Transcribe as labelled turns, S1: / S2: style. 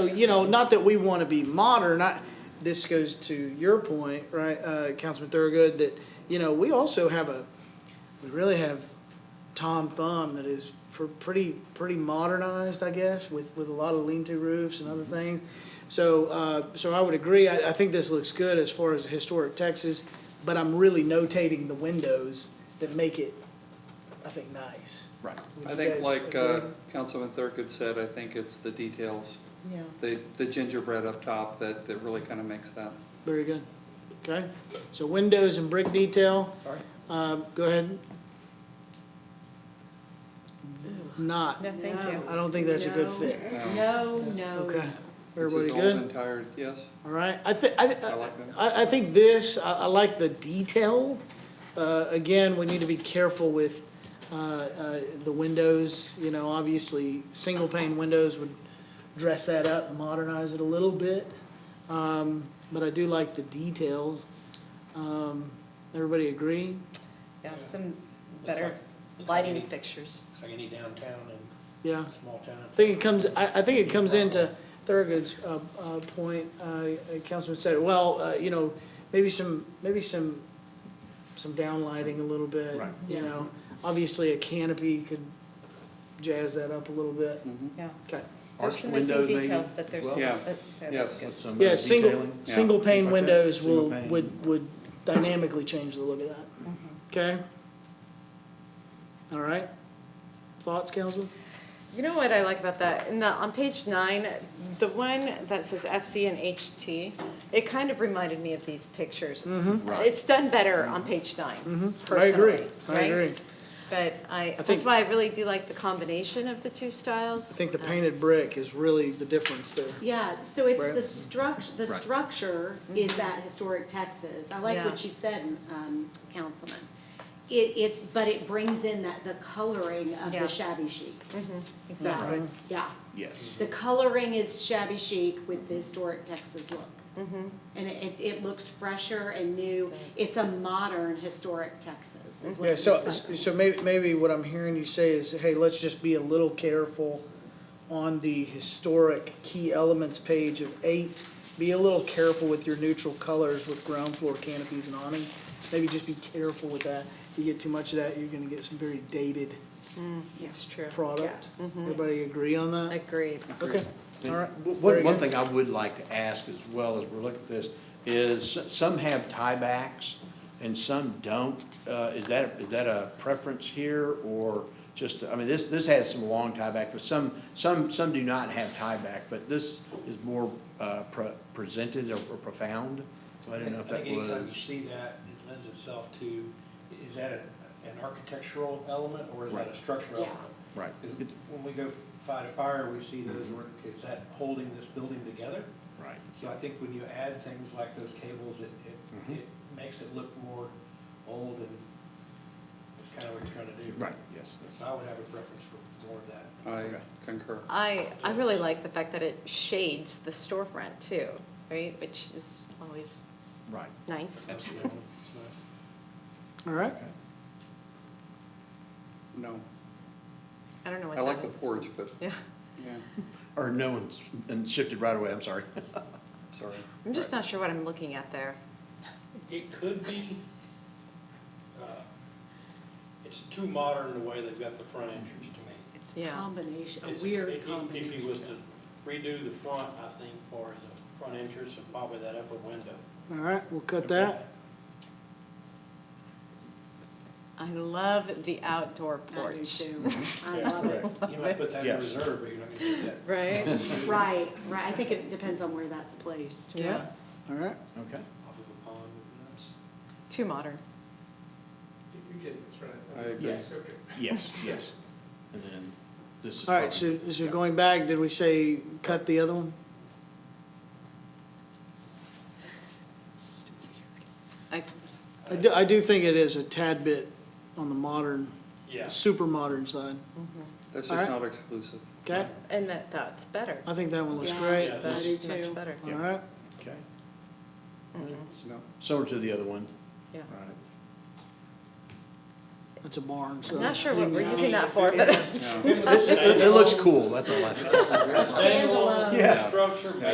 S1: So, you know, not that we want to be modern, I, this goes to your point, right, uh, Councilman Thurgood, that, you know, we also have a, we really have Tom Thumb that is pr- pretty, pretty modernized, I guess, with, with a lot of lean-to roofs and other things. So, uh, so I would agree, I, I think this looks good as far as historic Texas, but I'm really notating the windows that make it, I think, nice.
S2: Right.
S1: Would
S3: I
S1: you
S3: think
S1: guys
S3: like uh,
S1: agree?
S3: Councilman Thurgood said, I think it's the details,
S1: Yeah.
S3: the, the gingerbread up top that, that really kind of makes that. um,
S1: Very good. Okay, so windows and brick detail,
S2: All right.
S1: um, go ahead. Not,
S4: No, thank you.
S1: I don't think that's a good
S4: No.
S1: fit.
S3: um,
S4: No, no.
S1: Okay,
S3: it's
S1: everybody
S3: an old and
S1: good?
S3: tired, yes,
S1: All right, I thi, I, thi-
S3: I like that.
S1: I, I think this, I, I like the detail. Uh, again, we need to be careful with, uh, uh, the windows, you know, obviously, single pane windows would dress that up, modernize it a little bit. Um, but I do like the details. Um, everybody agree?
S4: Yeah, some
S5: Looks
S4: better
S5: like- looks like
S4: lighting
S5: any-
S4: fixtures.
S5: Looks like any downtown and
S1: Yeah.
S5: small town.
S1: I think it comes, I, I think it comes into Thurgood's, uh, uh, point, uh, uh, Councilman said, well, uh, you know, maybe some, maybe some, some downlighting a little bit.
S5: Right.
S1: You know, obviously a canopy could jazz that up a little bit.
S4: Yeah.
S1: Okay.
S4: There's
S2: Arched
S4: some missing
S2: windows, maybe?
S4: details, but there's.
S2: Well,
S3: Yeah.
S4: uh, that
S3: Yes.
S4: looks good.
S2: with some, uh,
S1: Yeah, single,
S2: detailing.
S1: single
S2: Things
S1: pane
S2: like that.
S1: windows
S2: Single
S1: will,
S2: pane.
S1: would, would dynamically change the look of that. Okay? All right? Thoughts, Councilman?
S4: You know what I like about that? In the, on page nine, the one that says FC and HT, it kind of reminded me of these pictures. Mm-hmm.
S2: Right.
S4: It's done better on page nine,
S1: I agree,
S4: personally,
S1: I
S4: right?
S1: agree.
S4: But I,
S1: think-
S4: that's why I really do like the combination of the two styles. Uh,
S1: I think the painted brick is really the difference there.
S6: Yeah, so it's
S1: Right.
S6: the structure, the
S2: Right.
S6: structure is that historic Texas. I like what
S4: Yeah.
S6: you said, um, Councilman. It, it's, but it brings in that, the coloring of
S4: Yeah. Mm-hmm,
S6: the shabby chic.
S4: Exactly.
S6: Yeah,
S2: Yes.
S6: the coloring is shabby chic with the historic Texas look.
S4: Mm-hmm.
S6: And it, it, it looks fresher and new. It's a modern historic Texas is what
S1: Mm-hmm. Yeah,
S6: it
S1: so,
S6: looks like.
S1: so maybe, maybe what I'm hearing you say is, hey, let's just be a little careful on the historic key elements page of eight. Be a little careful with your neutral colors with ground floor canopies and awning. Maybe just be careful with that. If you get too much of that, you're gonna get some very dated
S4: It's true.
S1: product. Everybody agree on that?
S4: Agreed.
S1: Okay, all right.
S2: And One,
S1: Very
S2: one
S1: good.
S2: thing I would like to ask as well as we're looking at this, is s- some have tiebacks and some don't. Uh, is that, is that a preference here or just, I mean, this, this has some long tieback, but some, some, some do not have tieback, but this is more, uh, pre- presented or or profound. So I don't know if that
S5: think anytime you
S2: was.
S5: see that, it lends itself to, is that a- an architectural element or is that a
S2: Right.
S5: structural
S6: Yeah.
S5: element?
S2: Right.
S5: 'Cause When we go fight a fire, we see those, where- is that holding this building together?
S2: Right.
S5: So I think when you add things like those cables, it, it, it makes it look more old and it's kind of what you're trying to do.
S2: Right, yes.
S5: So I would have a preference for more of that.
S1: Uh,
S3: I
S2: Okay.
S3: concur.
S4: I, I really like the fact that it shades the storefront too, right? Which is always
S2: Right.
S4: nice.
S5: Absolutely.
S1: All right,
S3: No,
S4: I don't know what
S3: I
S4: that is.
S3: like the porch, but,
S4: Yeah,
S3: yeah,
S2: Or no one's, and shifted right away, I'm sorry.
S3: sorry.
S4: I'm just not sure what I'm looking at there.
S7: It could be, uh, it's too modern the way they've got the front entrance to me.
S6: It's a
S4: Yeah.
S6: combination, a
S7: It's- if-
S6: weird
S7: if-
S6: combination.
S7: If you was to redo the front, I think, for the front entrance and probably that upper window.
S1: all right, we'll cut that.
S4: I love the outdoor
S6: I do
S4: porch.
S6: too. I love it.
S5: You might put that in
S2: Yes.
S5: reserve, but you're not gonna do that.
S4: Right?
S6: Right, right. I think it depends on where that's placed.
S4: Yeah,
S1: All right,
S2: Okay.
S5: off of a pond with nuts.
S4: too modern.
S7: You're getting this
S3: I
S7: right.
S3: agree.
S2: Yes, yes, yes. And then this is.
S1: all right, so,
S2: probably-
S1: so going back, did we say cut the other one?
S4: It's too weird.
S1: I do, I do think it is a tad bit on the modern,
S7: Yeah.
S1: super modern side,
S3: That's
S1: All
S3: just
S1: right.
S3: not exclusive.
S1: okay?
S4: I, and that, that's better.
S1: I think that one looks
S6: Yeah.
S1: great,
S7: Yeah.
S6: I do
S4: That's
S6: too.
S4: much better,
S1: all right?
S2: Okay.
S3: No,
S2: Similar to the other one,
S4: yeah.
S2: right?
S1: That's a barn, so.
S4: I'm not sure what we're using that for, but.
S3: No.
S2: It, it looks cool, that's all I.
S7: Standalone
S2: Yeah.
S7: structure,